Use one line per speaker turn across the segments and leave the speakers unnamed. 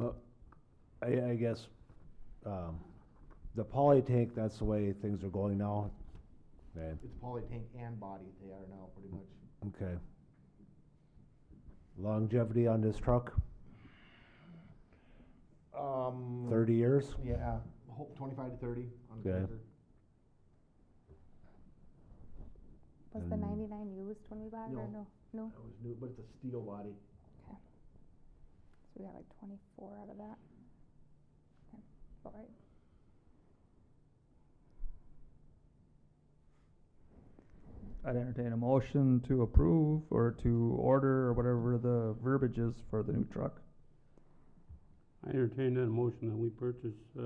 Uh, I, I guess, um, the poly tank, that's the way things are going now. Okay,
It's poly tank and body they are now, pretty much.
okay. Longevity on this truck,
Um.
Mm.
thirty years?
Yeah, ho- twenty-five to thirty on
Okay.
paper.
Was the
And-
ninety-nine used when we bought it, or no? No,
That was new, but it's a steel body.
so we got like twenty-four out of that. Okay, All right.
I'd entertain a motion to approve or to order or whatever the verbiage is for the new truck.
I entertain that motion that we purchase, uh,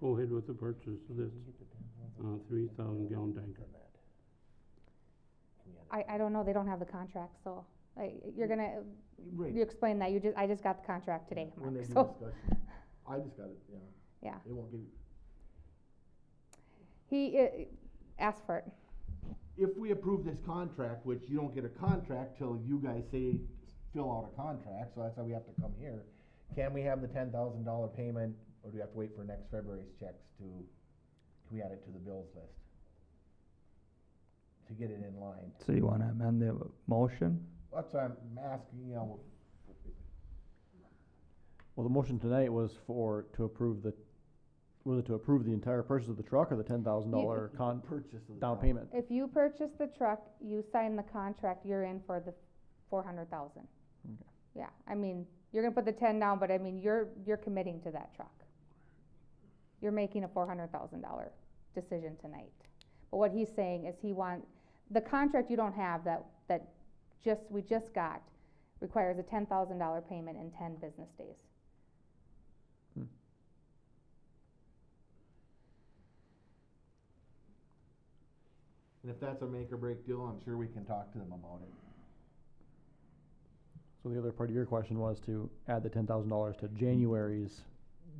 go ahead with the purchase of this, uh, three thousand gallon tanker.
I, I don't know, they don't have the contract, so, like, you're gonna, you
Right.
explained that, you just, I just got the contract today,
When
Mark,
they do
so,
discussion. I just got it, yeah.
Yeah.
It won't give,
he, uh, asked for it.
if we approve this contract, which you don't get a contract till you guys say, fill out a contract, so that's why we have to come here. Can we have the ten thousand dollar payment, or do we have to wait for next February's checks to, can we add it to the bills list? To get it in line.
So you wanna amend the motion?
That's why I'm asking, you know,
Well, the motion tonight was for, to approve the, was it to approve the entire purchase of the truck or the ten thousand dollar con,
purchase of the.
down
truck.
payment?
If you purchase the truck, you sign the contract, you're in for the four hundred thousand.
Okay.
Yeah, I mean, you're gonna put the ten down, but I mean, you're, you're committing to that truck. You're making a four hundred thousand dollar decision tonight. But what he's saying is he want, the contract you don't have that, that just, we just got, requires a ten thousand dollar payment in ten business days.
And if that's a make or break deal, I'm sure we can talk to them about it.
So the other part of your question was to add the ten thousand dollars to January's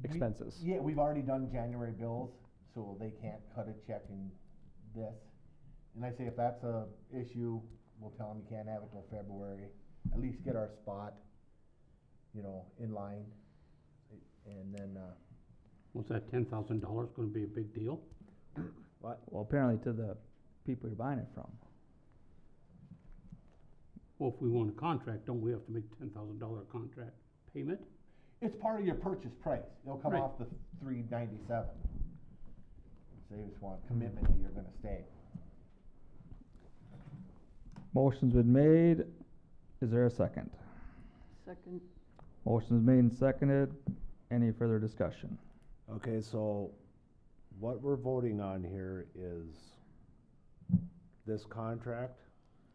Mhm.
expenses.
Yeah, we've already done January bills, so they can't cut a check in this. And I say if that's a issue, we'll tell them you can't have it till February, at least get our spot, you know, in line. And then, uh,
Was that ten thousand dollars gonna be a big deal?
Well, apparently to the people you're buying it from.
Well, if we want a contract, don't we have to make ten thousand dollar contract payment?
it's part of your purchase price, it'll come
Right.
off the three ninety-seven. So you just want commitment that you're gonna stay.
Motion's been made. Is there a second?
Second,
Motion's made and seconded. Any further discussion?
Okay, so what we're voting on here is this contract.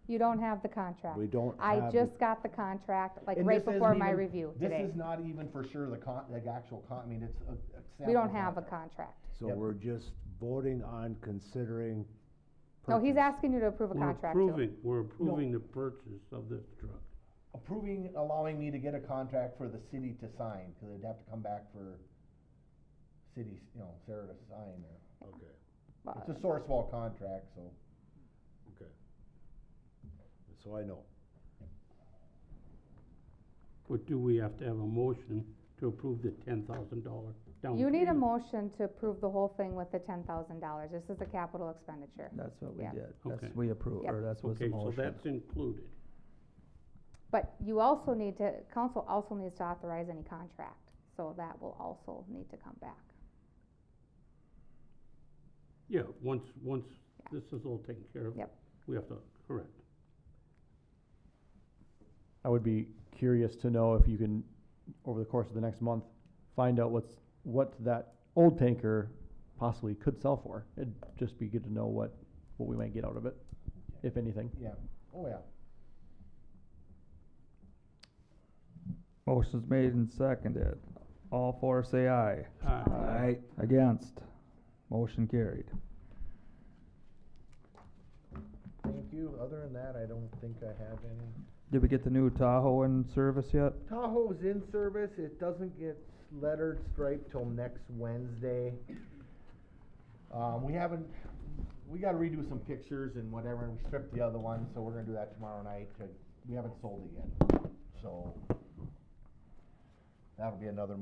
You don't have the contract.
We don't
I
have, the-
just got the contract, like,
And
right
this isn't
before my
even-
review today.
This is not even for sure the con, the actual con, I mean, it's a. a
We don't
sample
have a
contract.
contract.
so
Yep.
we're just voting on considering.
No, Oh, he's
purchase.
asking you to approve a
We're
contract too.
approving, we're approving the purchase of this truck.
approving, allowing me to get a contract for the city to sign, because they'd have to come back for cities, you know, Sarah to sign there.
Okay,
Well,
It's a source wall contract, so.
okay. So I know.
But do we have to have a motion to approve the ten thousand dollar down payment?
You need a motion to approve the whole thing with the ten thousand dollars. This is a capital expenditure.
That's what we
Yeah.
did. That's,
Okay.
we approve,
Yep.
or that's what's the
Okay, so
motion.
that's included.
But you also need to, council also needs to authorize any contract, so that will also need to come back.
Yeah, once, once this is all taken care of.
Yep.
We have to, correct.
I would be curious to know if you can, over the course of the next month, find out what's, what that old tanker possibly could sell for. It'd just be good to know what, what we might get out of it, if anything.
Yeah, oh yeah.
Motion's made and seconded. All four say aye.
Aye.
Aye.
Against? Motion carried.
Thank you, other than that, I don't think I have any.
Did we get the new Tahoe in service yet?
Tahoe's in service, it doesn't get lettered striped till next Wednesday. Um, we haven't, we gotta redo some pictures and whatever, and we stripped the other one, so we're gonna do that tomorrow night, to- we haven't sold it yet, so. That'll be another